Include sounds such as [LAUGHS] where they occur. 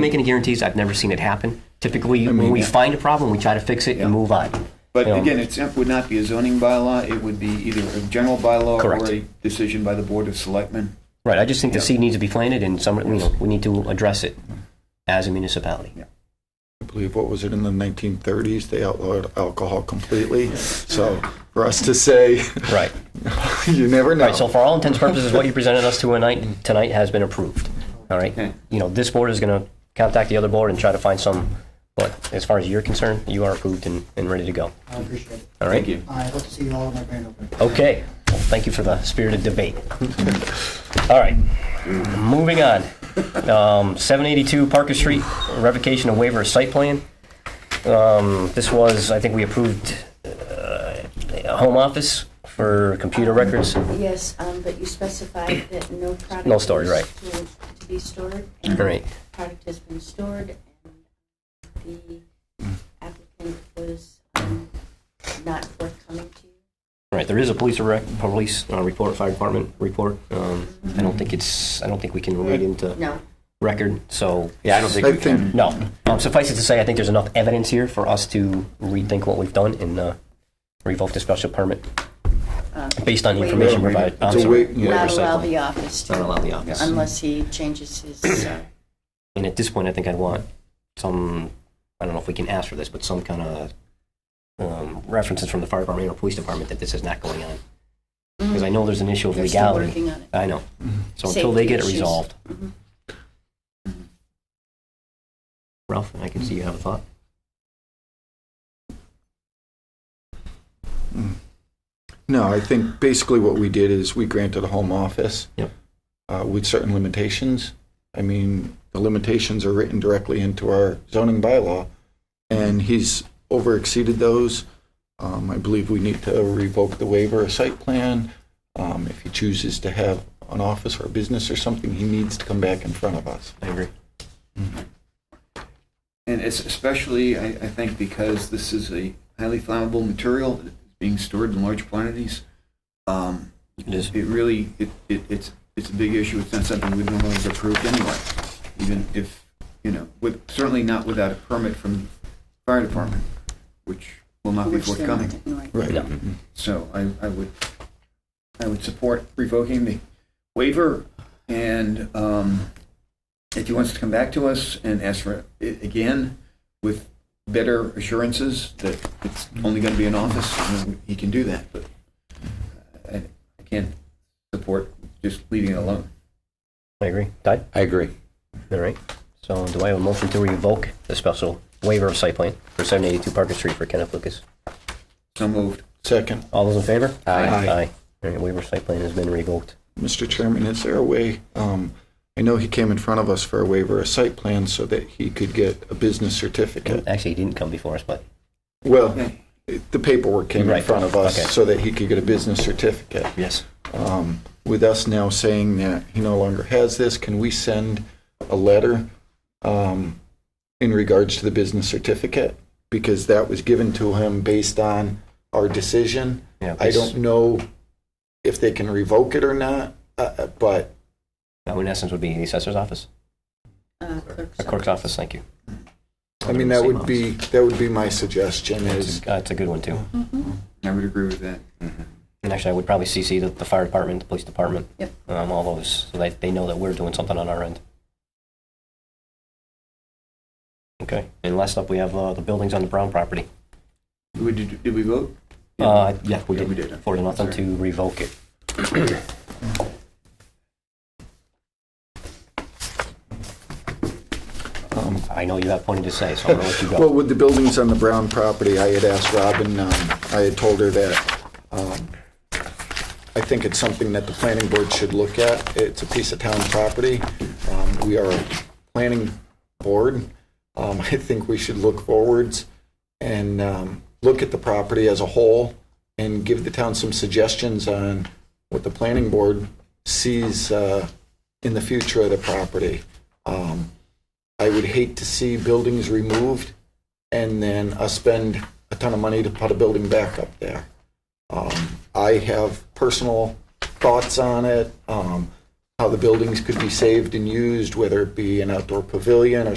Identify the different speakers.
Speaker 1: make any guarantees. I've never seen it happen. Typically, when we find a problem, we try to fix it and move on.
Speaker 2: But
Speaker 1: You know,
Speaker 2: again, it's- it would not be a zoning bylaw, it would be either a general bylaw
Speaker 1: Correct.
Speaker 2: or a decision by the Board of Selectmen.
Speaker 1: Right, I just think the seed needs to be planted and some, you know, we need to address it as a municipality.
Speaker 3: I believe, what was it, in the 1930s, they outlawed alcohol completely. So for us to say, [LAUGHS]
Speaker 1: Right.
Speaker 3: you never know.
Speaker 1: Right, so for all intents and purposes, what you presented us to tonight, tonight has been approved, all right?
Speaker 2: Okay.
Speaker 1: You know, this board is going to contact the other board and try to find some, but as far as you're concerned, you are approved and, and ready to go,
Speaker 4: I appreciate it.
Speaker 1: all right?
Speaker 2: Thank you.
Speaker 4: I hope to see you all at my grand opening.
Speaker 1: Okay, well, thank you for the spirited debate. All right, moving on. Um, 782 Parker Street, revocation of waiver of site plan. Um, This was, I think we approved uh, a home office for computer records.
Speaker 5: Yes, um, but you specified that no product.
Speaker 1: No storage,
Speaker 5: is
Speaker 1: right.
Speaker 5: to- To be stored.
Speaker 1: Right.
Speaker 5: And product has been stored, and the applicant was um, not forthcoming to you.
Speaker 1: All Right, there is a police rec, police uh, report, fire department report. Um, I don't think it's, I don't think we can read into
Speaker 5: No, Um,
Speaker 1: record, so,
Speaker 6: Yeah, I don't think
Speaker 3: I
Speaker 6: we
Speaker 3: think-
Speaker 6: can.
Speaker 1: no. Um, Suffice it to say, I think there's enough evidence here for us to rethink what we've done and uh, revoke the special permit
Speaker 5: uh,
Speaker 1: based on the
Speaker 5: Wait.
Speaker 1: information provided. I'm
Speaker 3: It's a
Speaker 1: sorry,
Speaker 3: wait-
Speaker 1: waiver
Speaker 5: not allow
Speaker 1: cycle.
Speaker 5: the office
Speaker 1: Not
Speaker 5: to,
Speaker 1: allow the office.
Speaker 5: unless he changes his, uh,
Speaker 1: And at this point, I think I'd want some, I don't know if we can ask for this, but some kind of um, references from the fire department or police department that this is not going on. Because I know there's an issue of
Speaker 5: they're still
Speaker 1: legality.
Speaker 5: working on it.
Speaker 1: I know. So until they
Speaker 5: Safety
Speaker 1: get it
Speaker 5: issues. Mm-hmm.
Speaker 1: resolved,
Speaker 5: Mhm.
Speaker 1: Ralph, I can see you have a thought.
Speaker 3: Mm. No, I think basically what we did is we granted a home office.
Speaker 1: Yep.
Speaker 3: uh, With certain limitations. I mean, the limitations are written directly into our zoning bylaw, and he's over exceeded those. Um, I believe we need to revoke the waiver of site plan. Um, If he chooses to have an office or a business or something, he needs to come back in front of us.
Speaker 1: I agree.
Speaker 2: And it's especially, I, I think, because this is a highly flammable material that is being stored in large quantities. Um,
Speaker 1: It is.
Speaker 2: It really, it, it, it's, it's a big issue. It's not something we've normally approved anyway, even if, you know, with, certainly not without a permit from the fire department, which will not be
Speaker 5: Which they're not
Speaker 2: forthcoming.
Speaker 5: doing right.
Speaker 1: Yeah.
Speaker 2: So I, I would, I would support revoking the waiver, and um, if he wants to come back to us and ask for it again with better assurances that it's only going to be an office, then he can do that, but I I can't support just leaving it alone.
Speaker 1: I agree. Ty?
Speaker 6: I agree.
Speaker 1: All right. So do I have a motion to revoke the special waiver of site plan for 782 Parker Street for Kenneth Lucas?
Speaker 2: So moved.
Speaker 3: Second,
Speaker 1: All those in favor?
Speaker 6: Aye.
Speaker 1: Aye. All right, waiver site plan has been revoked.
Speaker 3: Mr. Chairman, is there a way, um, I know he came in front of us for a waiver of site plan so that he could get a business certificate.
Speaker 1: Actually, he didn't come before us, but
Speaker 3: Well, the paperwork came in
Speaker 1: Right,
Speaker 3: front of us
Speaker 1: okay.
Speaker 3: so that he could get a business certificate.
Speaker 1: yes.
Speaker 3: Um, With us now saying that he no longer has this, can we send a letter um, in regards to the business certificate? Because that was given to him based on our decision.
Speaker 1: Yeah,
Speaker 3: I don't know if they can revoke it or not, uh, uh, but
Speaker 1: That in essence would be the assessor's office,
Speaker 5: Uh, clerk's
Speaker 1: or clerk's office, thank you.
Speaker 3: I mean, that would be, that would be my suggestion is,
Speaker 1: That's a good one, too.
Speaker 5: Mm-hmm.
Speaker 2: I would agree with that.
Speaker 1: And actually, I would probably CC the, the fire department, the police department.
Speaker 5: Yep.
Speaker 1: Um, all those, so that they know that we're doing something on our end. Okay, and last up, we have, uh, the buildings on the Brown property.
Speaker 2: Did we- Did we vote?
Speaker 1: Uh, yeah, we
Speaker 2: Yeah, we
Speaker 1: did,
Speaker 2: did.
Speaker 1: four to nothing to revoke it.
Speaker 3: um,
Speaker 1: I know you have plenty to say, so I'm gonna let you go.
Speaker 3: Well, with the buildings on the Brown property, I had asked Robin, um, I had told her that um, I think it's something that the planning board should look at. It's a piece of town property. Um, We are a planning board. Um, [LAUGHS] I think we should look forwards and um, look at the property as a whole and give the town some suggestions on what the planning board sees uh, in the future of the property. Um, I would hate to see buildings removed and then us spend a ton of money to put a building back up there. Um, I have personal thoughts on it, um, how the buildings could be saved and used, whether it be an outdoor pavilion or